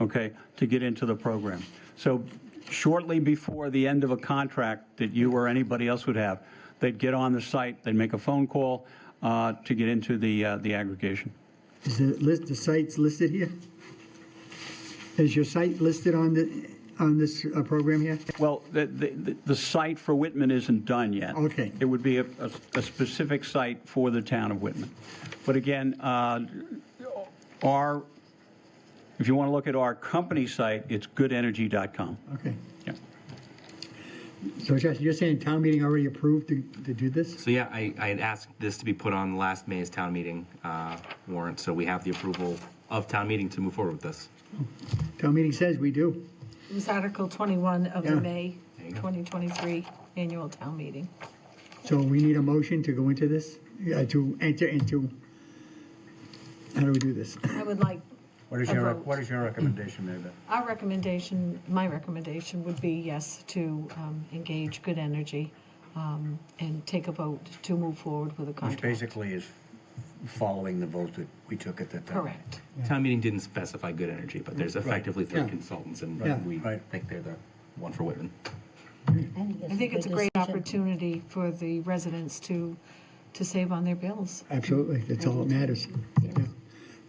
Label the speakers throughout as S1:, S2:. S1: okay, to get into the program. So shortly before the end of a contract that you or anybody else would have, they'd get on the site, they'd make a phone call uh, to get into the, uh, the aggregation.
S2: Is the list, the sites listed here? Is your site listed on the, on this uh, program here?
S1: Well, the, the, the site for Whitman isn't done yet.
S2: Okay.
S1: It would be a, a, a specific site for the town of Whitman. But again, uh, our, if you want to look at our company site, it's goodenergy.com.
S2: Okay.
S1: Yeah.
S2: So Josh, you're saying town meeting already approved to, to do this?
S3: So yeah, I, I had asked this to be put on last May's town meeting uh, warrant, so we have the approval of town meeting to move forward with this.
S2: Town meeting says we do.
S4: It was Article 21 of the
S2: Yeah.
S4: May
S3: you go.
S4: 2023 annual town meeting.
S2: So we need a motion to go into this, Yeah, to enter into, how do we do this?
S4: I would like
S5: What is
S4: a
S5: your,
S4: vote.
S5: what is your recommendation, David?
S4: Our recommendation, my recommendation would be yes to um, engage good energy um, and take a vote to move forward with a
S5: Which
S4: contract.
S5: basically is following the vote that we took at that time.
S4: Correct.
S3: Town meeting didn't specify good energy, but there's effectively three
S2: Yeah.
S3: consultants,
S2: Yeah.
S3: and we
S5: Right.
S3: think they're the one for Whitman.
S4: I think it's a great opportunity for the residents to, to save on their bills.
S2: Absolutely, that's all that matters. Yeah.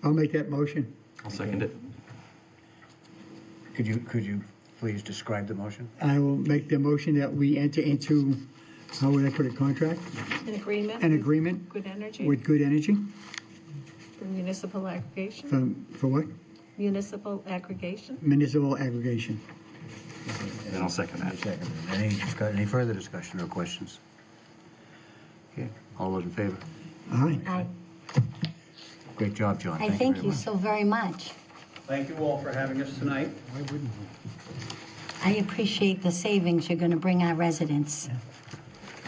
S2: I'll make that motion.
S3: I'll second it.
S5: Could you, could you please describe the motion?
S2: I will make the motion that we enter into, how would I put it, contract?
S4: An agreement?
S2: An
S4: with
S2: agreement
S4: Good energy
S2: with Good Energy
S4: for municipal aggregation?
S2: for, for what?
S4: Municipal aggregation?
S2: Municipal aggregation.
S3: And I'll second that.
S5: Second. Any, discuss- any further discussion or questions? Okay, all those in favor?
S2: Aye.
S6: I,
S5: Great job, John.
S6: I
S5: Thank you
S6: thank
S5: very
S6: you
S5: much.
S6: so very much.
S1: Thank you all for having us tonight.
S6: I appreciate the savings you're going to bring our residents.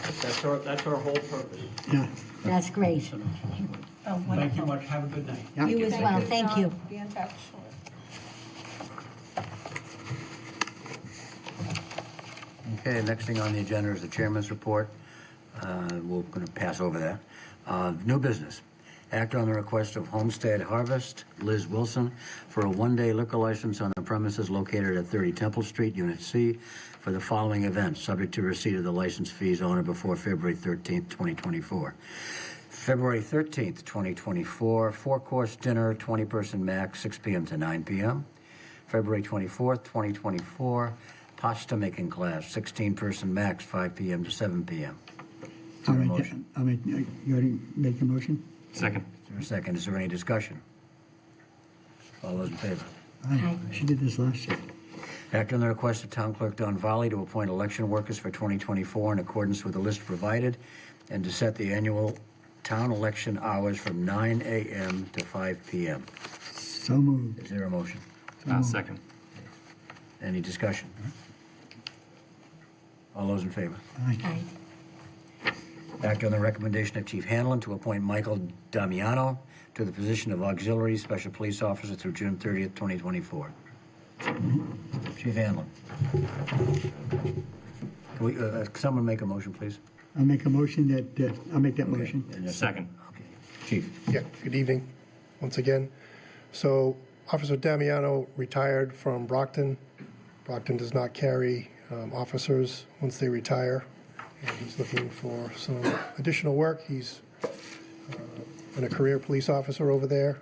S1: That's our, that's our whole purpose.
S2: Yeah.
S6: That's great.
S1: Thank you much, have a good night.
S2: Yeah.
S6: You as well, thank you.
S4: Be in touch.
S5: Okay, next thing on the agenda is the chairman's report. Uh, We're going to pass over that. Uh, New business. Act on the request of Homestead Harvest, Liz Wilson, for a one-day liquor license on the premises located at 30 Temple Street, Unit C, for the following events, subject to receipt of the license fees on or before February 13th, 2024. February 13th, 2024, four-course dinner, 20-person max, 6 p.m. to 9 p.m. February 24th, 2024, pasta making class, 16-person max, 5 p.m. to 7 p.m. Is
S2: I'll
S5: there a
S2: make that-
S5: motion?
S2: I'll make, uh, you already make the motion?
S3: Second.
S5: Is there a second? Is there any discussion? All those in favor?
S2: Aye. She did this last year.
S5: Act on the request of Town Clerk Don Valley to appoint election workers for 2024 in accordance with the list provided and to set the annual town election hours from 9 a.m. to 5 p.m.
S2: So moved.
S5: Is there a motion?
S3: Uh, second.
S5: Any discussion? All those in favor?
S2: Aye.
S6: Aye.
S5: Act on the recommendation of Chief Hanlon to appoint Michael Damiano to the position of Auxiliary Special Police Officer through June 30th, 2024. Chief Hanlon. Can we, uh, uh, someone make a motion, please?
S2: I'll make a motion that, uh, I'll make that motion.
S5: And a
S3: Second.
S5: Okay. Chief,
S7: Yeah, good evening, once again. So Officer Damiano retired from Brockton. Brockton does not carry um, officers once they retire. And He's looking for some additional work. He's uh, been a career police officer over there,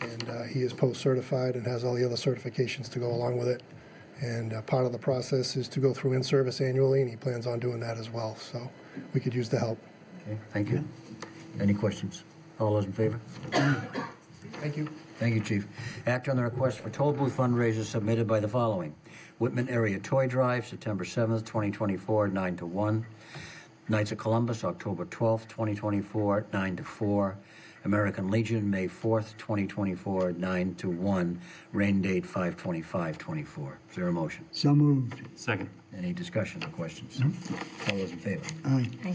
S7: and uh, he is post-certified and has all the other certifications to go along with it. And uh, part of the process is to go through in-service annually, and he plans on doing that as well. So we could use the help.
S5: okay, thank you. Any questions? All those in favor?
S7: Thank you.
S5: Thank you, Chief. Act on the request for toll booth fundraisers submitted by the following. Whitman Area Toy Drive, September 7th, 2024, 9 to 1. Knights of Columbus, October 12th, 2024, 9 to 4. American Legion, May 4th, 2024, 9 to 1. Rain date 5/25/24. Is there a motion?
S2: So moved.
S3: Second.
S5: Any discussion or questions? All those in favor?
S2: Aye.
S6: Aye.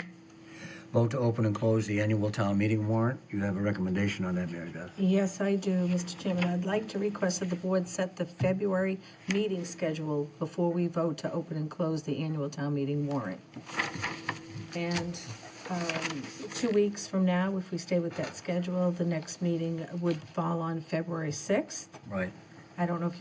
S5: Vote to open and close the annual town meeting warrant. You have a recommendation on that, Mary Beth?
S4: Yes, I do, Mr. Chairman. I'd like to request that the board set the February meeting schedule before we vote to open and close the annual town meeting warrant. And um, two weeks from now, if we stay with that schedule, the next meeting would fall on February 6th.
S5: Right.
S4: I don't know if